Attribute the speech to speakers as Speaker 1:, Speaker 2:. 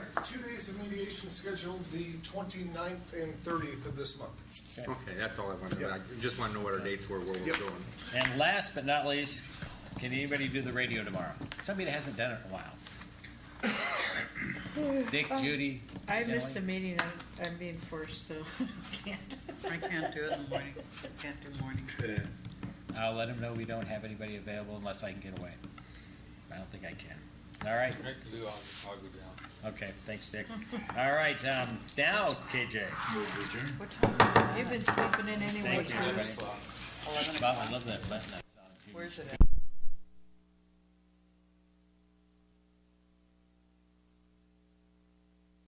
Speaker 1: days of mediation scheduled, the 29th and thirtieth of this month.
Speaker 2: Okay, that's all I wanted, to know. I just want to know what our dates were, where we're
Speaker 1: Yep.
Speaker 2: going.
Speaker 3: And last but not least, can anybody do the radio tomorrow? Somebody that hasn't done it in a while. Dick, Judy,
Speaker 4: I missed a meeting, I'm, I'm being forced, so can't.
Speaker 5: I can't do it in the morning, I can't do morning.
Speaker 3: I'll let them know we don't have anybody available unless I can get away. I don't think I can. All right,
Speaker 6: Nick Lou, I'll, I'll go down.
Speaker 3: okay, thanks, Dick. All right, um, now, KJ.
Speaker 4: What time is it? You've been sleeping in anyway.
Speaker 3: Thank you,
Speaker 4: Teresa.
Speaker 3: everybody.
Speaker 6: Slot.
Speaker 3: Bob, I love that Latin song.
Speaker 5: Where's it at?